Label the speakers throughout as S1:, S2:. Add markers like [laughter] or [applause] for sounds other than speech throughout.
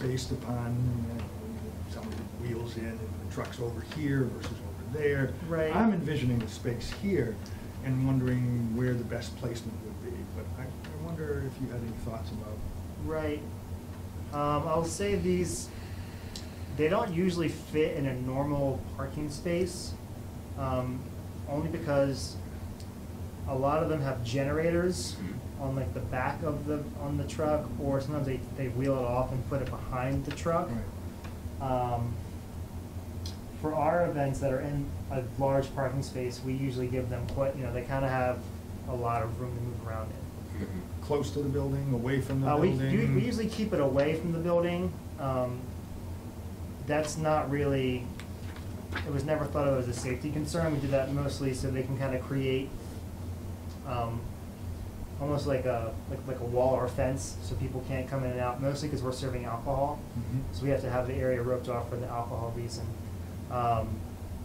S1: based upon you know, someone with wheels in, and the truck's over here versus over there.
S2: Right.
S1: I'm envisioning the space here and wondering where the best placement would be, but I, I wonder if you had any thoughts about,
S2: Right. Um, I'll say these, they don't usually fit in a normal parking space, um, only because a lot of them have generators on like the back of the, on the truck, or sometimes they, they wheel it off and put it behind the truck.
S1: right,
S2: Um, for our events that are in a large parking space, we usually give them quite, you know, they kind of have a lot of room to move around in.
S1: close to the building, away from the
S2: Uh, we,
S1: building?
S2: do- we usually keep it away from the building. Um, That's not really, it was never thought of as a safety concern. We did that mostly so they can kind of create, um, almost like a, like, like a wall or a fence, so people can't come in and out, mostly because we're serving alcohol.
S1: Mhm.
S2: So we have to have the area roped off for the alcohol reason. Um,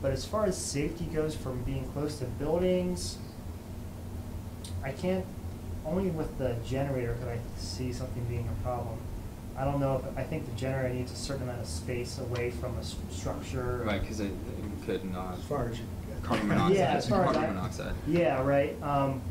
S2: but as far as safety goes from being close to buildings, I can't, only with the generator could I see something being a problem. I don't know, if I think the generator needs a certain amount of space away from a s- structure.
S3: Right, because it, it could not.
S1: As far as you can get. [laughs]
S3: Carbon monoxide.
S2: Yeah, as far as
S3: Carbon
S2: I-
S3: monoxide.
S2: Yeah, right, um,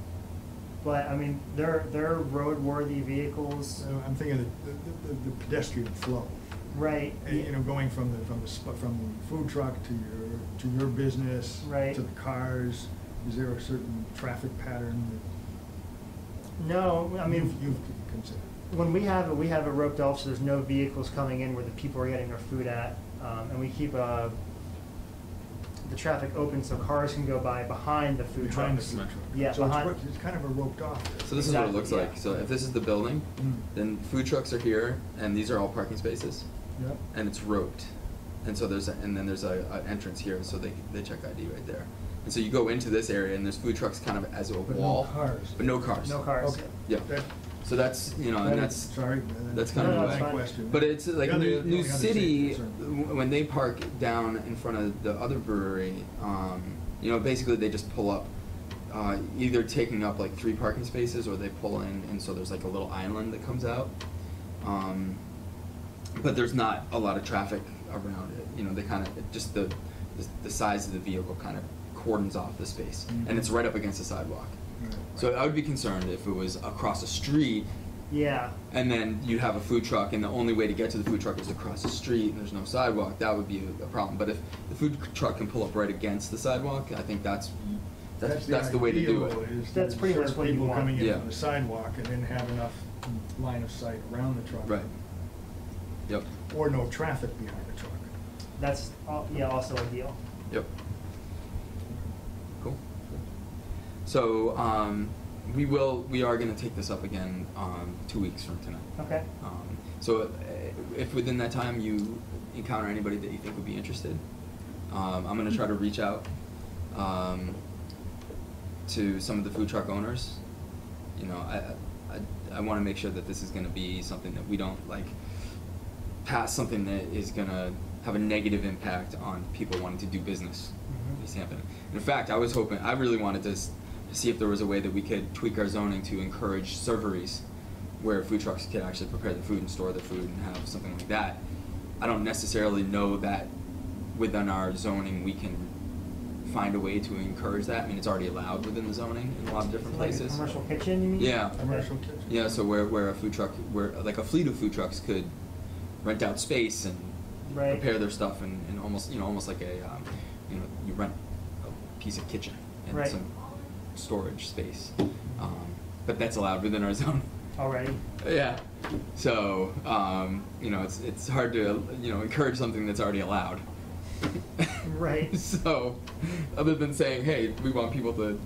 S2: but I mean, they're, they're roadworthy vehicles,
S1: So I'm thinking of the, the- the- the pedestrian flow.
S2: right?
S1: And, you know, going from the, from the, sp- from the food truck to your, to your business.
S2: Right.
S1: To the cars, is there a certain traffic pattern
S2: No,
S1: that?
S2: I mean.
S1: you've- You've considered.
S2: When we have it, we have it roped off, so there's no vehicles coming in where the people are getting their food at, um, and we keep, uh, the traffic open so cars can go by behind the food
S1: Behind
S2: trucks.
S1: the food truck.
S2: Yeah,
S1: So it's
S2: behind-
S1: roped- It's kind of a roped off.
S3: So this is what it
S2: Exactly,
S3: looks like.
S2: yeah.
S3: So if this is the building,
S1: Mm.
S3: then food trucks are here, and these are all parking spaces,
S1: Yep.
S3: and it's roped, and so there's a, and then there's a, a entrance here, so they they check ID right there, and so you go into this area, and there's food trucks kind of as a
S1: But no
S3: wall,
S1: cars.
S3: but no cars.
S2: No cars.
S1: Okay.
S3: Yeah.
S1: That-
S3: So that's you know,
S1: that
S3: and
S1: is-
S3: that's
S1: Sorry.
S3: that's kind
S2: No,
S3: of
S2: no,
S3: a
S2: it's
S1: my
S2: fine.
S1: question.
S3: But it's like
S1: The other-
S3: New,
S1: the
S3: New
S1: only other
S3: City,
S1: safety concern.
S3: w- when they park down in front of the other brewery, um, you know, basically they just pull up, uh, either taking up like three parking spaces or they pull in, and so there's like a little island that comes out. Um, but there's not a lot of traffic around it. You know, they kind of just the, the the size of the vehicle kind of cordons off the space,
S1: Mhm.
S3: and it's right up against the sidewalk.
S1: Right.
S3: So I would be concerned if it was across a street
S2: Yeah,
S3: and then you'd have a food truck, and the only way to get to the food truck is across the street, and there's no sidewalk. That would be a, a problem. But if the food truck can pull up right against the sidewalk, I think that's that's that's, the, way to do it.
S1: ideal, is
S2: That's
S1: to
S2: pretty much
S1: serve
S2: what you
S1: People
S2: want.
S1: coming in
S3: Yeah.
S1: from the sidewalk and then have enough line of sight around the truck.
S3: Right. Yep.
S1: Or no traffic behind the truck.
S2: that's, al- yeah, also ideal.
S3: Yep. Cool. So um, we will we are going to take this up again um, two weeks from tonight.
S2: Okay,
S3: Um, so uh, if within that time you encounter anybody that you think would be interested, um, I'm going to try to reach out um, to some of the food truck owners. You know, I I, I want to make sure that this is going to be something that we don't like pass something that is going to have a negative impact on people wanting to do business
S2: Mhm.
S3: in East Hampton. In fact, I was hoping I really wanted to s- see if there was a way that we could tweak our zoning to encourage serveries where food trucks could actually prepare the food and store the food and have something like that. I don't necessarily know that within our zoning we can find a way to encourage that. I mean, it's already allowed within the zoning in a lot of different
S2: like a
S3: places.
S2: commercial kitchen, you mean?
S3: Yeah.
S2: Okay.
S1: Commercial kitchen.
S3: Yeah, so where, where a food truck, where like a fleet of food trucks could rent out space and
S2: Right.
S3: prepare their stuff and, and almost, you know, almost like a, um, you know, you rent a piece of kitchen and
S2: Right.
S3: some storage space. Um, but that's allowed within our [laughs] zone.
S2: Already,
S3: Yeah. So, um, you know, it's, it's hard to, you know, encourage something that's already allowed. [laughs]
S2: Right.
S3: so, other than saying, hey, we want people to,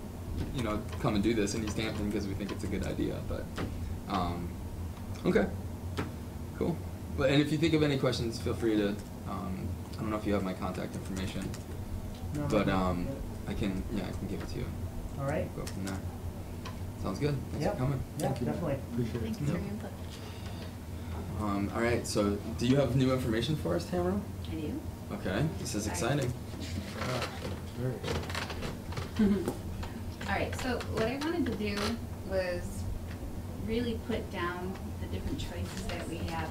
S3: you know, come and do this in East Hampton because we think it's a good idea, but, um, okay. Cool. But, and if you think of any questions, feel free to, um, I don't know if you have my contact information,
S2: No,
S3: but,
S2: no,
S3: um,
S2: yeah.
S3: I can, yeah, I can give it to you.
S2: all right.
S3: Go from there. Sounds good. Thanks
S2: Yeah.
S3: for coming.
S2: Yeah,
S1: Thank you.
S2: definitely.
S1: Appreciate it.
S4: Thank you for your
S3: Yeah.
S4: input.
S3: Um, all right, so do you have new information for us, Tamara?
S4: I do.
S3: Okay, this is
S4: Sorry.
S3: exciting.
S1: Ah, very good.
S4: All right, so what I wanted to do was really put down the different choices that we have